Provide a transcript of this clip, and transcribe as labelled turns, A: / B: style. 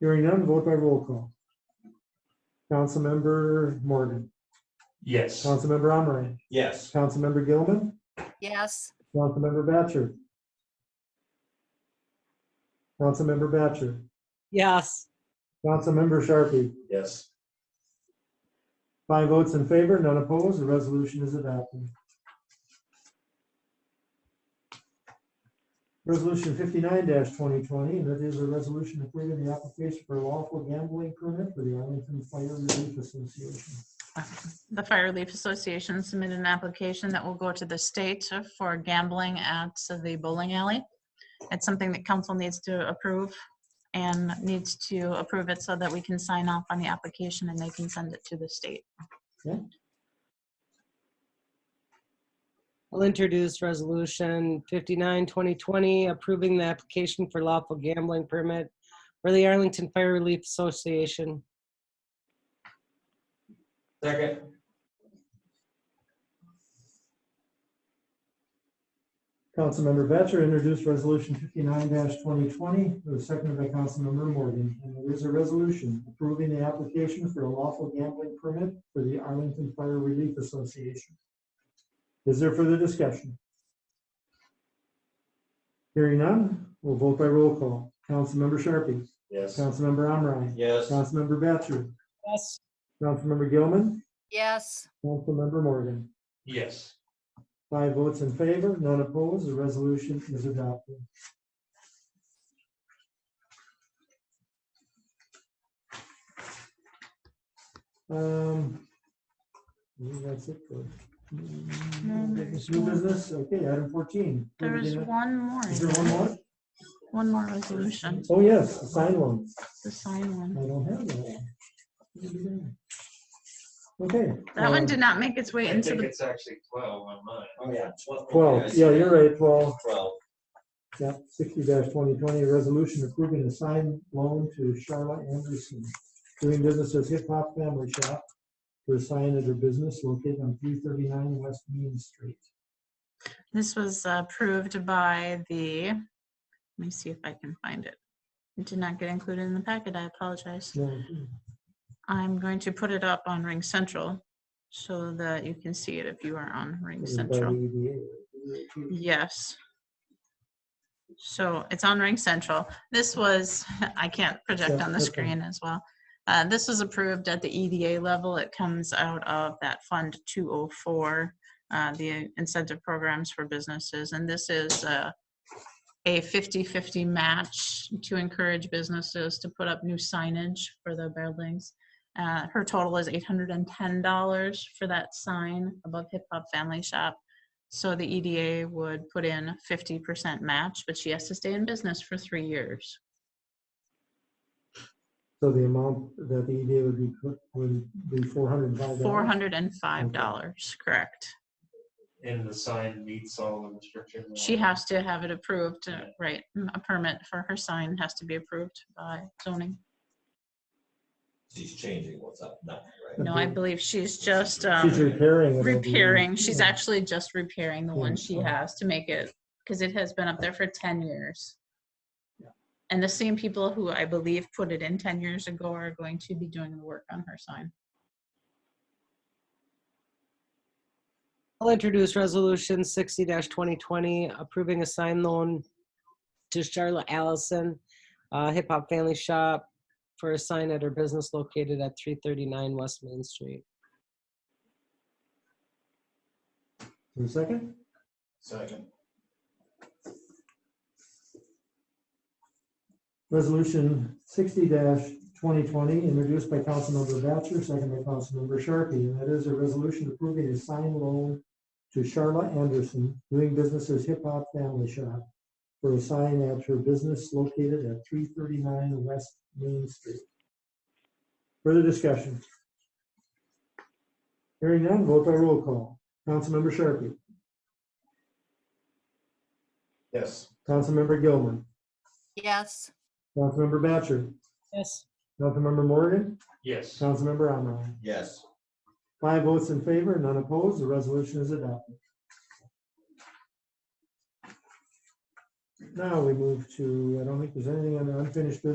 A: Hearing none, vote by roll call. Councilmember Morgan,
B: Yes.
A: Councilmember Omerion,
B: Yes.
A: Councilmember Gilman,
C: yes,
A: Councilmember Batchor. Councilmember Batchor,
D: yes,
A: Councilmember Sharpie,
B: Yes.
A: five votes in favor, none opposed, the resolution is adopted. Resolution fifty-nine twenty twenty, and that is a resolution approving the application for lawful gambling permit for the Arlington Fire Relief Association.
E: The Fire Relief Association submitted an application that will go to the state for gambling at the bowling alley. It's something that council needs to approve and needs to approve it so that we can sign off on the application and they can send it to the state.
D: I'll introduce resolution 59-2020 approving the application for lawful gambling permit for the Arlington Fire Relief Association.
B: Second.
A: Councilmember Batchor introduced resolution fifty-nine twenty twenty, it was seconded by Councilmember Morgan. And there is a resolution approving the application for a lawful gambling permit for the Arlington Fire Relief Association. Is there further discussion? Hearing none, we'll vote by roll call. Councilmember Sharpie,
B: Yes.
A: Councilmember Omerion,
B: Yes.
A: Councilmember Batchor,
D: Yes.
A: Councilmember Gilman,
C: yes,
A: Councilmember Morgan.
B: Yes.
A: Five votes in favor, none opposed, the resolution is adopted. Um, I think That's it for.
E: No,
A: Business,
E: there's
A: New
E: one.
A: business, okay, item fourteen.
E: There is one more.
A: Is there one more?
E: One more resolution,
A: Oh, yes, the sign one.
E: the sign
A: I
E: one.
A: don't have that. one. Where did it go? Okay.
E: That one
A: um,
E: did not make its way
F: I
E: into
F: think
E: the,
F: it's actually twelve on mine.
B: Oh, yeah.
A: Twelve, yeah, you're right, twelve.
B: Twelve.
A: Yeah, sixty twenty twenty, resolution approving a signed loan to Charlotte Anderson, doing business as Hip Hop Family Shop for a sign at her business located on three thirty-nine West Main Street.
E: this was approved by the, let me see if I can find it. It did not get included in the packet. I apologize.
A: No,
E: I'm going to put it up on Ring Central so that you can see it if you are on Ring
A: it's by
E: Central.
A: the EDA.
E: Yes. So it's on Ring Central. This was, I can't project
A: Yeah,
E: on the
A: okay.
E: screen as well. Uh, This was approved at the EDA level. It comes out of that Fund 204, uh, the incentive programs for businesses. And this is uh, a 50/50 match to encourage businesses to put up new signage for the buildings. Uh, Her total is $810 for that sign above Hip Hop Family Shop. So the EDA would put in fifty percent match, but she has to stay in business for three years.
A: So the amount that the EDA would be, put would be four hundred and five.
E: Four hundred and five dollars, correct.
F: And the sign meets all the restrictions.
E: She has to have it approved, uh, right? mm, A permit for her sign has to be approved by zoning.
B: She's changing what's up now, right?
E: No, I believe she's just um,
A: She's repairing. it, I believe.
E: repairing. She's
A: Yeah.
E: actually just repairing the one
A: Yeah,
E: she
A: so-
E: has to make it, because it has been up there for ten years.
A: Yeah.
E: And the same people who I believe put it in ten years ago are going to be doing the work on her sign.
D: I'll introduce resolution sixty twenty twenty approving a sign loan to Charlotte Allison, uh, Hip Hop Family Shop for a sign at her business located at three thirty-nine West Main Street.
A: For a second,
B: Second.
A: resolution sixty twenty twenty, introduced by Councilmember Batchor, second by Councilmember Sharkey, and that is a resolution approving a signed loan to Charla Anderson, doing business as Hip Hop Family Shop, for a sign at her business located at three thirty-nine West Main Street. Further discussion? Hearing none, vote by roll call. Councilmember Sharkey,
B: Yes.
A: Councilmember Gilman,
C: yes.
A: Councilmember Batchor,
D: Yes.
A: Councilmember Morgan,
F: Yes.
A: Councilmember Omerion.
B: Yes.
A: Five votes in favor, none opposed, the resolution is adopted. Now we move to, I don't think there's anything on the unfinished business.